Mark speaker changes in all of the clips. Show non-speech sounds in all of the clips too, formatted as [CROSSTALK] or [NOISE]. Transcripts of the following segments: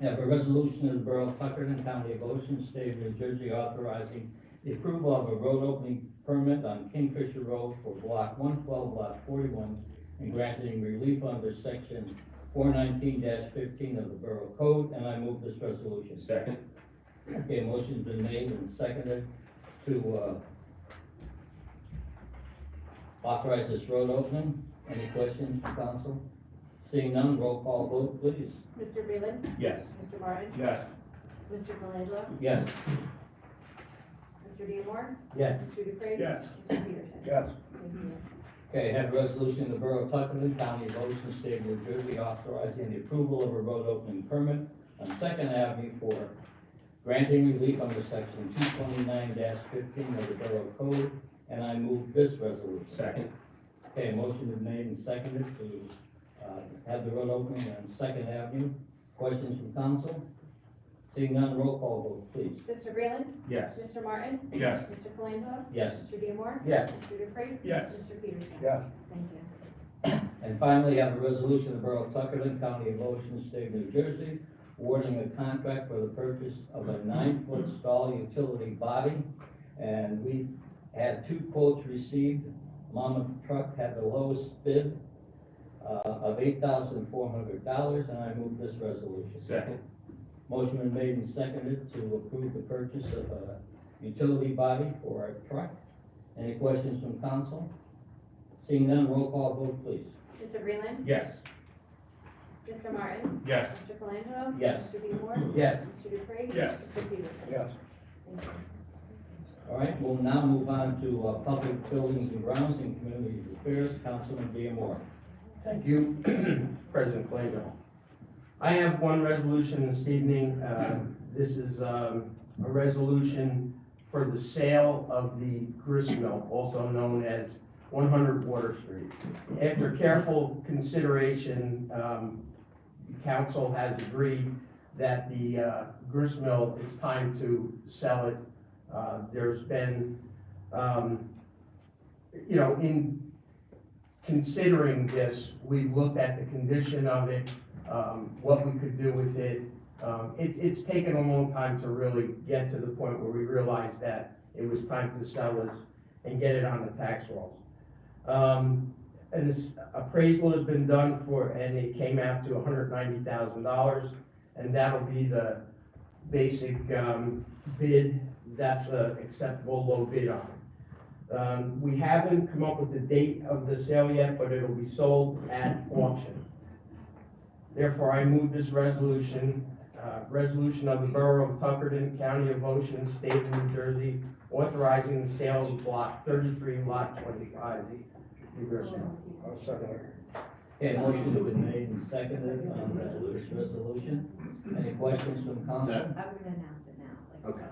Speaker 1: Have a resolution of the Borough of Tuckerton, County of Ocean, State of New Jersey authorizing the approval of a road opening permit on Kingfisher Road for block one twelve, lot forty-one, and granting relief under section four nineteen fifteen of the Borough Code, and I move this resolution.
Speaker 2: Second?
Speaker 1: Okay, motion's been made and seconded to, uh, authorize this road opening. Any questions from council? Seeing none, roll call vote, please.
Speaker 3: Mr. Breland.
Speaker 2: Yes.
Speaker 3: Mr. Martin.
Speaker 2: Yes.
Speaker 3: Mr. Colangelo.
Speaker 1: Yes.
Speaker 3: Mr. Diemar.
Speaker 1: Yes.
Speaker 3: Mr. Dupree.
Speaker 2: Yes.
Speaker 3: Mr. Peterson.
Speaker 2: Yes.
Speaker 3: Thank you.
Speaker 1: Okay, have a resolution of the Borough of Tuckerton, County of Ocean, State of New Jersey authorizing the approval of a road opening permit on Second Avenue for granting relief under section two twenty-nine fifteen of the Borough Code, and I move this resolution.
Speaker 2: Second?
Speaker 1: Okay, motion is made and seconded to, uh, have the road opening on Second Avenue. Questions from council? Seeing none, roll call vote, please.
Speaker 3: Mr. Breland.
Speaker 2: Yes.
Speaker 3: Mr. Martin.
Speaker 2: Yes.
Speaker 3: Mr. Colangelo.
Speaker 1: Yes.
Speaker 3: Mr. Diemar.
Speaker 2: Yes.
Speaker 3: Mr. Dupree.
Speaker 2: Yes.
Speaker 3: Mr. Peterson.
Speaker 2: Yes.
Speaker 3: Thank you.
Speaker 1: And finally, I have a resolution of the Borough of Tuckerton, County of Ocean, State of New Jersey, awarding a contract for the purchase of a nine-foot stall utility body. And we had two quotes received. Monmouth Truck had the lowest bid uh, of eight thousand four hundred dollars, and I move this resolution.
Speaker 2: Second?
Speaker 1: Motion been made and seconded to approve the purchase of a utility body for our truck. Any questions from council? Seeing none, roll call vote, please.
Speaker 3: Mr. Breland.
Speaker 2: Yes.
Speaker 3: Mr. Martin.
Speaker 2: Yes.
Speaker 3: Mr. Colangelo.
Speaker 1: Yes.
Speaker 3: Mr. Diemar.
Speaker 1: Yes.
Speaker 3: Mr. Dupree.
Speaker 2: Yes.
Speaker 3: Mr. Peterson.
Speaker 2: Yes.
Speaker 3: Thank you.
Speaker 1: All right, we'll now move on to uh, public buildings and grounds and community affairs, Councilman Diemar.
Speaker 4: Thank you, [CLEARS THROAT] President Clayville. I have one resolution this evening. Uh, This is um, a resolution for the sale of the grist mill, also known as 100 Water Street. After careful consideration, um, the council has agreed that the uh, grist mill, it's time to sell it. Uh, There's been, um, you know, in considering this, we looked at the condition of it, um, what we could do with it. Um, it, it's taken a long time to really get to the point where we realized that it was time to sell this and get it on the tax rolls. Um, and this appraisal has been done for, and it came out to hundred ninety thousand dollars, and that'll be the basic, um, bid, that's a acceptable low bid on it. Um, we haven't come up with the date of the sale yet, but it'll be sold at auction. Therefore, I move this resolution, uh, resolution of the Borough of Tuckerton, County of Ocean, State of New Jersey, authorizing the sale of block thirty-three, lot twenty-five. Reverse now.
Speaker 1: Okay, motion has been made and seconded on this resolution. Any questions from council?
Speaker 3: I was gonna announce it now, like.
Speaker 4: Okay.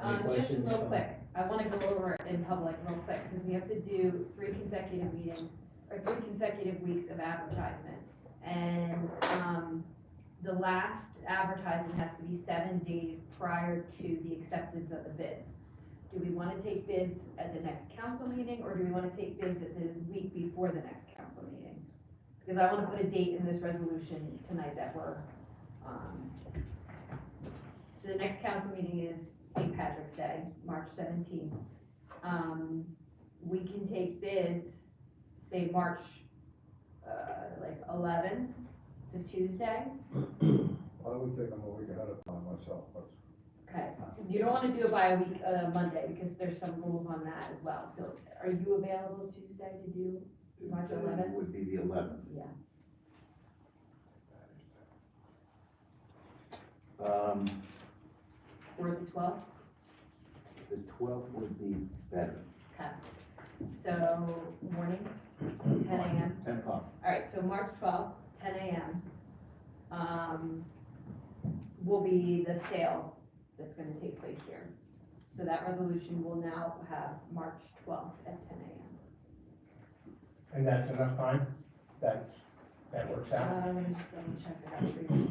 Speaker 1: Any
Speaker 3: Um, just
Speaker 1: questions
Speaker 3: real
Speaker 1: from-
Speaker 3: quick, I wanna go over it in public real quick, because we have to do three consecutive meetings, or three consecutive weeks of advertisement. And, um, the last advertisement has to be seven days prior to the acceptance of the bids. Do we wanna take bids at the next council meeting, or do we wanna take bids at the week before the next council meeting? Because I wanna put a date in this resolution tonight that we're, um, so the next council meeting is St. Patrick's Day, March seventeenth. Um, we can take bids, say, March, uh, like eleventh to Tuesday.
Speaker 5: I would take them a week ahead of time myself, but
Speaker 3: Okay, you don't wanna do it by a week, uh, Monday, because there's some rules on that as well, so are you available Tuesday to do? March 11th?
Speaker 6: Would be the eleventh.
Speaker 3: Yeah,
Speaker 6: Um,
Speaker 3: or the twelfth,
Speaker 6: the twelfth would be better.
Speaker 3: okay, so, morning, ten AM.
Speaker 6: Ten o'clock.
Speaker 3: All right, so March twelfth, ten AM, um, will be the sale that's gonna take place here. So that resolution will now have March twelfth at ten AM.
Speaker 4: And that's enough time? That's, that works out?
Speaker 3: Uh, let me just double check I got three days.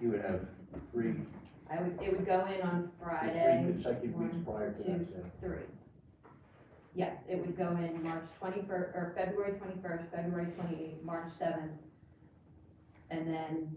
Speaker 6: You would have three,
Speaker 3: I would, it would go in on
Speaker 6: three
Speaker 3: Friday,
Speaker 6: consecutive weeks
Speaker 3: one,
Speaker 6: prior to
Speaker 3: two,
Speaker 6: that, so.
Speaker 3: three. Yes, it would go in March twenty-first, or February twenty-first, February twenty-eighth, March seventh, and then